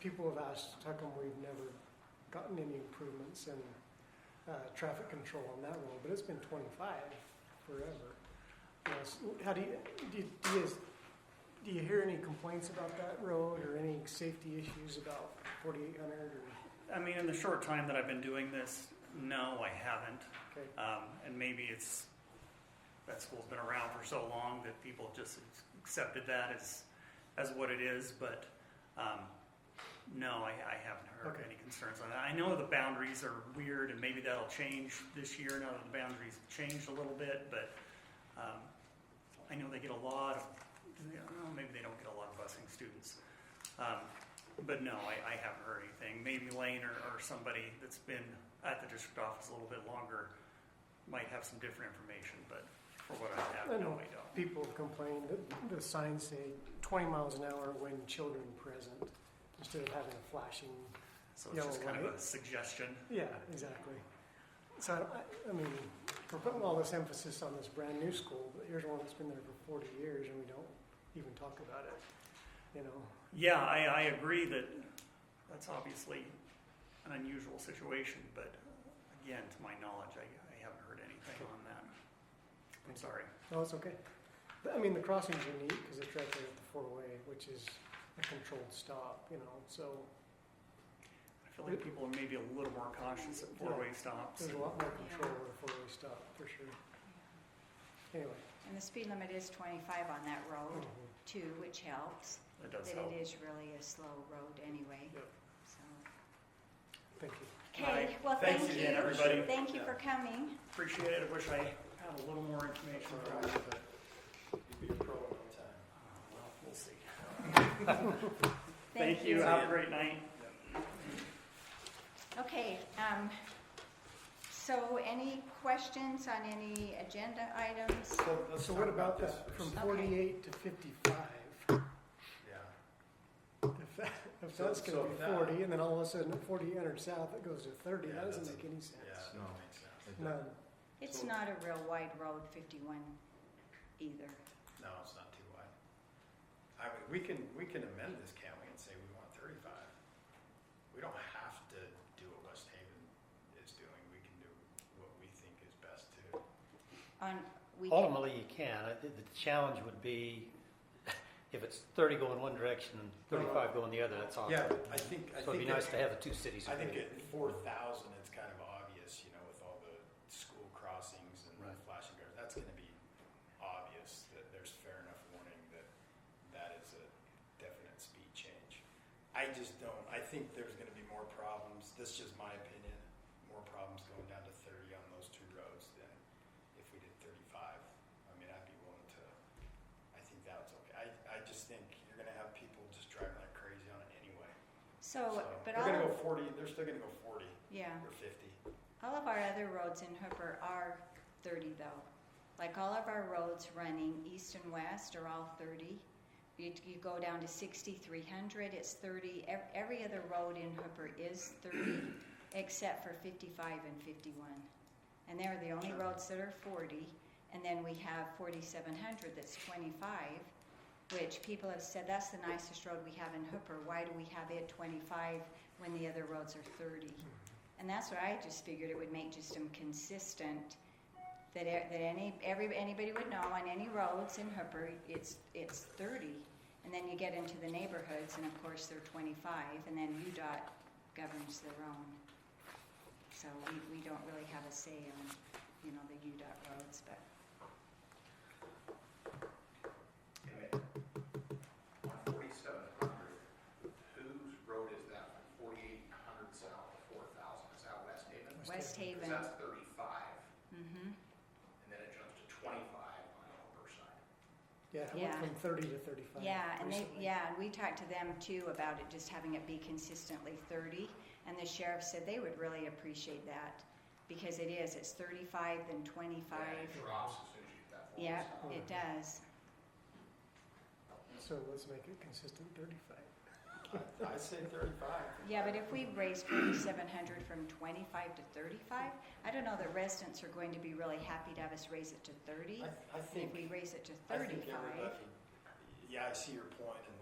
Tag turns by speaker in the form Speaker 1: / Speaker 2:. Speaker 1: people have asked, how come we've never gotten any improvements in, uh, traffic control on that road, but it's been twenty-five forever. You know, s- How do you, do you, do you, guys- do you hear any complaints about that road or any safety issues about forty-eight hundred or,
Speaker 2: I mean, in the short time that I've been doing this, no, I haven't.
Speaker 1: okay?
Speaker 2: Um, and maybe it's, that school's been around for so long that people just accepted that as, as what it is, but, um, no, I, I haven't heard
Speaker 1: Okay.
Speaker 2: any concerns on that. I know the boundaries are weird and maybe that'll change this year now that the boundaries changed a little bit, but, um, I know they get a lot of, I don't know, maybe they don't get a lot of busing students. Um, but no, I, I haven't heard anything. Maybe Lane or, or somebody that's been at the district office a little bit longer might have some different information, but for what I have,
Speaker 1: I
Speaker 2: no,
Speaker 1: know.
Speaker 2: I don't.
Speaker 1: People have complained that the signs say twenty miles an hour when children present, instead of having a flashing,
Speaker 2: So it's just
Speaker 1: Yeah,
Speaker 2: kind of a
Speaker 1: right.
Speaker 2: suggestion.
Speaker 1: yeah, exactly. So I, I- I mean, we're putting all this emphasis on this brand new school, but here's one that's been there for forty years and we don't even talk about it, you know?
Speaker 2: Yeah, I, I agree that that's obviously an unusual situation, but again, to my knowledge, I, I haven't heard anything on that. I'm sorry.
Speaker 1: No, it's okay. But, I mean, the crossing's unique because it's right there at the four-way, which is a controlled stop, you know, so
Speaker 2: I feel like people are maybe a little more cautious at four-way stops.
Speaker 1: there's a lot more control at a four-way stop, for sure. Anyway.
Speaker 3: And the speed limit is twenty-five on that road
Speaker 1: mhm.
Speaker 3: too, which helps.
Speaker 2: It
Speaker 3: But
Speaker 2: does help.
Speaker 3: it is really a slow road anyway,
Speaker 1: Yep.
Speaker 3: so.
Speaker 1: Thank you.
Speaker 3: Okay,
Speaker 2: Right.
Speaker 3: well, thank
Speaker 2: Thanks
Speaker 3: you.
Speaker 2: again, everybody.
Speaker 3: Thank you for coming.
Speaker 2: Appreciate it. I wish I had a little more information for you, but
Speaker 4: Be a pro at one time.
Speaker 2: uh, well, we'll see. Thank you. Have a great night.
Speaker 3: Okay, um, so any questions on any agenda items?
Speaker 1: So what about that from forty-eight to fifty-five?
Speaker 4: Yeah.
Speaker 1: If that, if that's
Speaker 4: So-
Speaker 1: gonna
Speaker 4: so
Speaker 1: be
Speaker 4: that-
Speaker 1: forty, and then all of a sudden at forty-eight hundred south, it goes to thirty,
Speaker 4: Yeah,
Speaker 1: that doesn't
Speaker 4: that's-
Speaker 1: make any
Speaker 4: Yeah,
Speaker 1: sense.
Speaker 4: that makes sense.
Speaker 1: None.
Speaker 3: It's not a real wide road, fifty-one either.
Speaker 4: No, it's not too wide. I mean, we can, we can amend this, can't we, and say we want thirty-five? We don't have to do what West Haven is doing. We can do what we think is best to.
Speaker 3: On, we can,
Speaker 5: Ultimately, you can. I think The challenge would be if it's 30 going one direction and 35 going the other, that's awkward.
Speaker 4: Yeah, I think, I think.
Speaker 5: So it'd be nice to have the two cities.
Speaker 4: I think
Speaker 5: agree.
Speaker 4: at four thousand, it's kind of obvious, you know, with all the school crossings and the
Speaker 5: Right.
Speaker 4: flashing guards, that's gonna be obvious that there's fair enough warning that that is a definite speed change. I just don't, I think there's gonna be more problems, this is just my opinion, more problems going down to thirty on those two roads than if we did thirty-five. I mean, I'd be willing to, I think that's okay. I, I just think you're gonna have people just driving like crazy on it anyway.
Speaker 3: so, but
Speaker 4: They're
Speaker 3: all,
Speaker 4: gonna
Speaker 3: of-
Speaker 4: go forty, they're still gonna go forty
Speaker 3: yeah,
Speaker 4: or fifty.
Speaker 3: all of our other roads in Hooper are thirty though. Like all of our roads running east and west are all thirty. You, you go down to sixty-three hundred, it's thirty. Ev- Every other road in Hooper is thirty, except for fifty-five and fifty-one. And they're the only roads that are forty. And then we have forty-seven hundred that's twenty-five, which people have said, that's the nicest road we have in Hooper. Why do we have it twenty-five when the other roads are thirty? And that's what I just figured it would make just them consistent, that, e- that any, every, anybody would know on any roads in Hooper, it's, it's thirty. And then you get into the neighborhoods, and of course, they're twenty-five, and then UDOT governs their own. So we, we don't really have a say on, you know, the UDOT roads, but.
Speaker 6: On forty-seven hundred, whose road is that from forty-eight hundred south to four thousand? Is that West Haven?
Speaker 3: West
Speaker 6: Because
Speaker 3: Haven,
Speaker 6: that's thirty-five,
Speaker 3: mm-hmm,
Speaker 6: and then it jumps to twenty-five on the upper side.
Speaker 1: Yeah, it went
Speaker 3: Yeah.
Speaker 1: from thirty to thirty-five.
Speaker 3: yeah, and they,
Speaker 1: recently.
Speaker 3: yeah, and we talked to them too about it, just having it be consistently thirty, and the sheriff said they would really appreciate that, because it is, it's thirty-five, then
Speaker 6: And
Speaker 3: twenty-five,
Speaker 6: it drops as soon as you hit that
Speaker 3: yeah,
Speaker 6: forty-seven.
Speaker 3: it does.
Speaker 1: So let's make it consistent thirty-five.
Speaker 4: I say thirty-five.
Speaker 3: Yeah, but if we raise forty-seven hundred from twenty-five to thirty-five, I don't know, the residents are going to be really happy to have us raise it to thirty,
Speaker 4: I, I
Speaker 3: and if
Speaker 4: think,
Speaker 3: we raise it to
Speaker 4: I think uh,
Speaker 3: thirty-five,
Speaker 4: everybody, yeah, I see your point, and